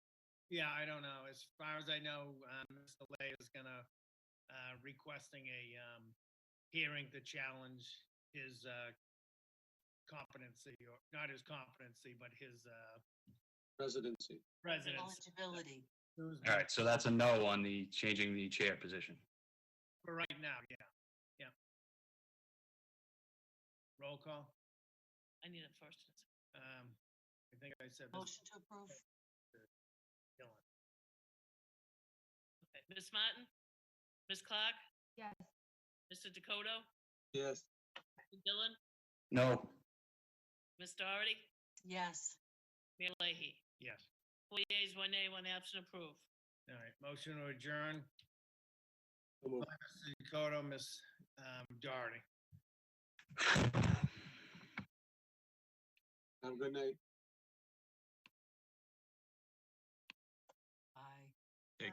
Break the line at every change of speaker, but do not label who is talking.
Yeah, I don't know. As far as I know, um, Mr. Lay is gonna, uh, requesting a, um, hearing to challenge his, uh, competency, or not his competency, but his, uh,
residency.
residence.
Eligibility.
Who's-
All right, so that's a no on the changing the chair position.
For right now, yeah, yeah. Roll call.
I need it first. and it's-
Um, I think I said this.
Motion to approve?
Dillon.
Okay, Ms. Martin? Ms. Clark?
Yes.
Mr. Dakota?
Yes,
Mr. Dillon?
No,
Ms. Doherty?
Yes.
Mayor Leahy?
Yes.
Four yeas, one nay, one absent, approved.
All right, motion to adjourn.
so moved.
Mr. Dakota, Ms. um, Doherty.
have a good night.